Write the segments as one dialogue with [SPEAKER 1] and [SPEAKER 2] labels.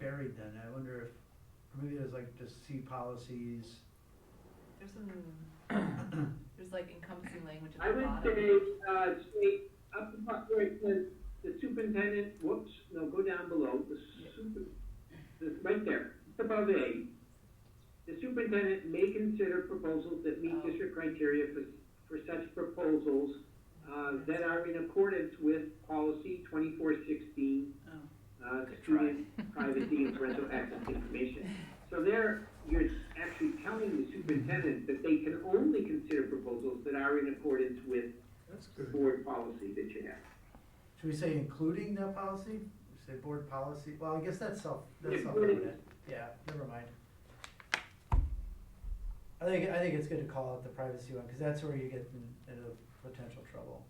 [SPEAKER 1] buried then, I wonder if, or maybe there's like just C policies.
[SPEAKER 2] There's some, there's like encompassing language
[SPEAKER 3] I
[SPEAKER 2] at the
[SPEAKER 3] would
[SPEAKER 2] bottom.
[SPEAKER 3] say, uh, say, up above where it says, the superintendent, whoops, no, go down below, the super, the, right there, just above A. The superintendent may consider proposals that meet
[SPEAKER 2] Oh.
[SPEAKER 3] district criteria for, for such proposals, uh, that are in accordance with policy twenty-four sixteen,
[SPEAKER 1] Oh.
[SPEAKER 3] uh,
[SPEAKER 2] Good try.
[SPEAKER 3] student privacy and parental access to information. So there, you're actually telling the superintendent that they can only consider proposals that are in accordance with
[SPEAKER 4] That's
[SPEAKER 3] the
[SPEAKER 4] good.
[SPEAKER 3] board policy that you have.
[SPEAKER 1] Should we say including that policy? Say board policy, well, I guess that's self, that's
[SPEAKER 3] Yeah.
[SPEAKER 1] self-evident, yeah, never mind. I think, I think it's good to call out the privacy one, cause that's where you get in- into potential trouble.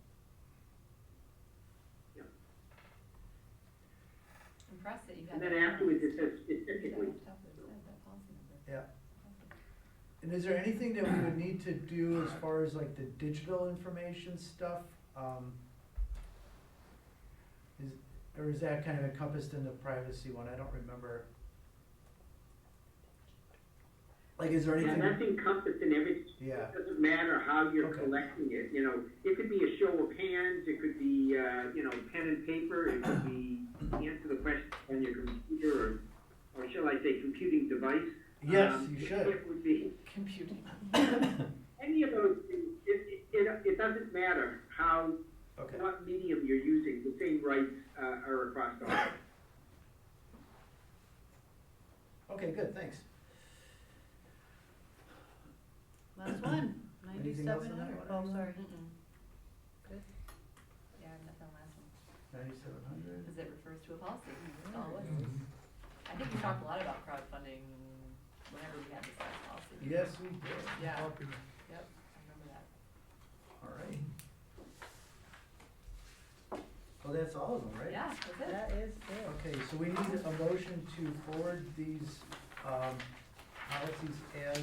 [SPEAKER 2] Impressed that you had.
[SPEAKER 3] And then
[SPEAKER 2] that.
[SPEAKER 3] afterwards, it says
[SPEAKER 2] You got
[SPEAKER 3] specifically,
[SPEAKER 2] on top of it, you had that policy number.
[SPEAKER 1] Yeah.
[SPEAKER 2] Awesome.
[SPEAKER 1] And is there anything that we would need to do as far as like the digital information stuff? Um, Is, or is that kind of encompassed in the privacy one? I don't remember. Like, is there
[SPEAKER 3] yeah,
[SPEAKER 1] anything,
[SPEAKER 3] that's encompassed in every,
[SPEAKER 1] yeah,
[SPEAKER 3] it doesn't matter how you're
[SPEAKER 1] Okay.
[SPEAKER 3] collecting it, you know, it could be a show of hands, it could be, uh, you know, pen and paper, it could be answer the question on your computer, or, or shall I say, computing device.
[SPEAKER 1] yes,
[SPEAKER 3] Um,
[SPEAKER 1] you
[SPEAKER 3] it-
[SPEAKER 1] should.
[SPEAKER 3] It would be,
[SPEAKER 2] Computing.
[SPEAKER 3] any of those, things, it, it, it, it doesn't matter how,
[SPEAKER 1] Okay,
[SPEAKER 3] what medium you're using, the same rights, uh, are across the board.
[SPEAKER 1] okay, good, thanks.
[SPEAKER 2] Last one,
[SPEAKER 1] Anything else on that
[SPEAKER 2] ninety-seven hundred.
[SPEAKER 1] one?
[SPEAKER 2] Oh, sorry. Mm-mm. Good. Yeah, I have nothing on last one,
[SPEAKER 1] Ninety-seven hundred.
[SPEAKER 2] because it refers to a policy, that's all it
[SPEAKER 1] Mm-hmm.
[SPEAKER 2] was. I think we talked a lot about crowdfunding whenever we had this last policy.
[SPEAKER 1] Yes, we did,
[SPEAKER 2] Yeah,
[SPEAKER 4] Popular.
[SPEAKER 2] yep, I remember that.
[SPEAKER 1] all right. Well, that's all of them, right?
[SPEAKER 2] Yeah, that's it.
[SPEAKER 5] That is it.
[SPEAKER 1] Okay, so we need a motion to forward these, um, policies as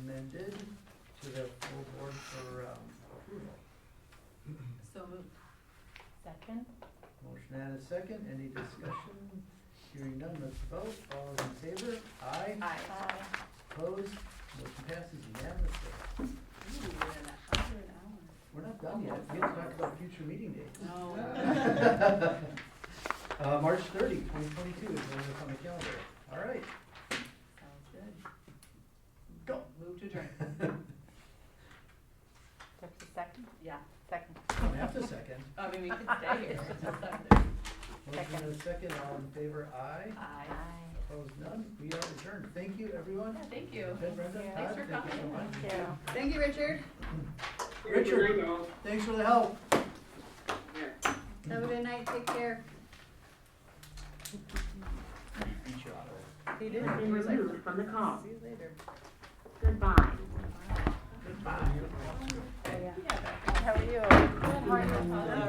[SPEAKER 1] amended to the full board for, um, approval.
[SPEAKER 2] So moved.
[SPEAKER 5] Second?
[SPEAKER 1] Motion and a second, any discussion? Hearing none, let's vote, all those in favor? Aye,
[SPEAKER 2] Aye.
[SPEAKER 1] opposed, motion passes unanimously.
[SPEAKER 2] Ooh, we're in a hundred hours.
[SPEAKER 1] We're not done yet, we have to talk about future meeting dates.
[SPEAKER 2] No.
[SPEAKER 1] Uh, March 30, 2022 is when it's on the calendar, all right.
[SPEAKER 2] Sounds good.
[SPEAKER 1] Go.
[SPEAKER 2] Move to adjourn.
[SPEAKER 5] There's a second?
[SPEAKER 2] Yeah,
[SPEAKER 5] Second.
[SPEAKER 1] Don't have to second.
[SPEAKER 2] I mean, we could stay here. It's just up there.
[SPEAKER 1] Motion and a second, all in favor, aye.
[SPEAKER 2] Aye.
[SPEAKER 1] Opposed, none. We are adjourned. Thank you, everyone.
[SPEAKER 2] Yeah, thank you.
[SPEAKER 1] Ben, Brenda, Todd,
[SPEAKER 2] Thanks
[SPEAKER 5] Thank you.
[SPEAKER 2] for
[SPEAKER 1] thank you so
[SPEAKER 2] coming.
[SPEAKER 1] much.
[SPEAKER 5] Thank you.
[SPEAKER 2] Thank you, Richard.
[SPEAKER 1] Richard.
[SPEAKER 3] Good night, all.
[SPEAKER 1] Thanks for the help.
[SPEAKER 3] Yeah.
[SPEAKER 6] Have a good night, take care.
[SPEAKER 5] He did.
[SPEAKER 7] has been removed from the call.
[SPEAKER 5] See you later.
[SPEAKER 7] Goodbye.
[SPEAKER 1] Goodbye.
[SPEAKER 5] How are you?
[SPEAKER 2] Good, how are you?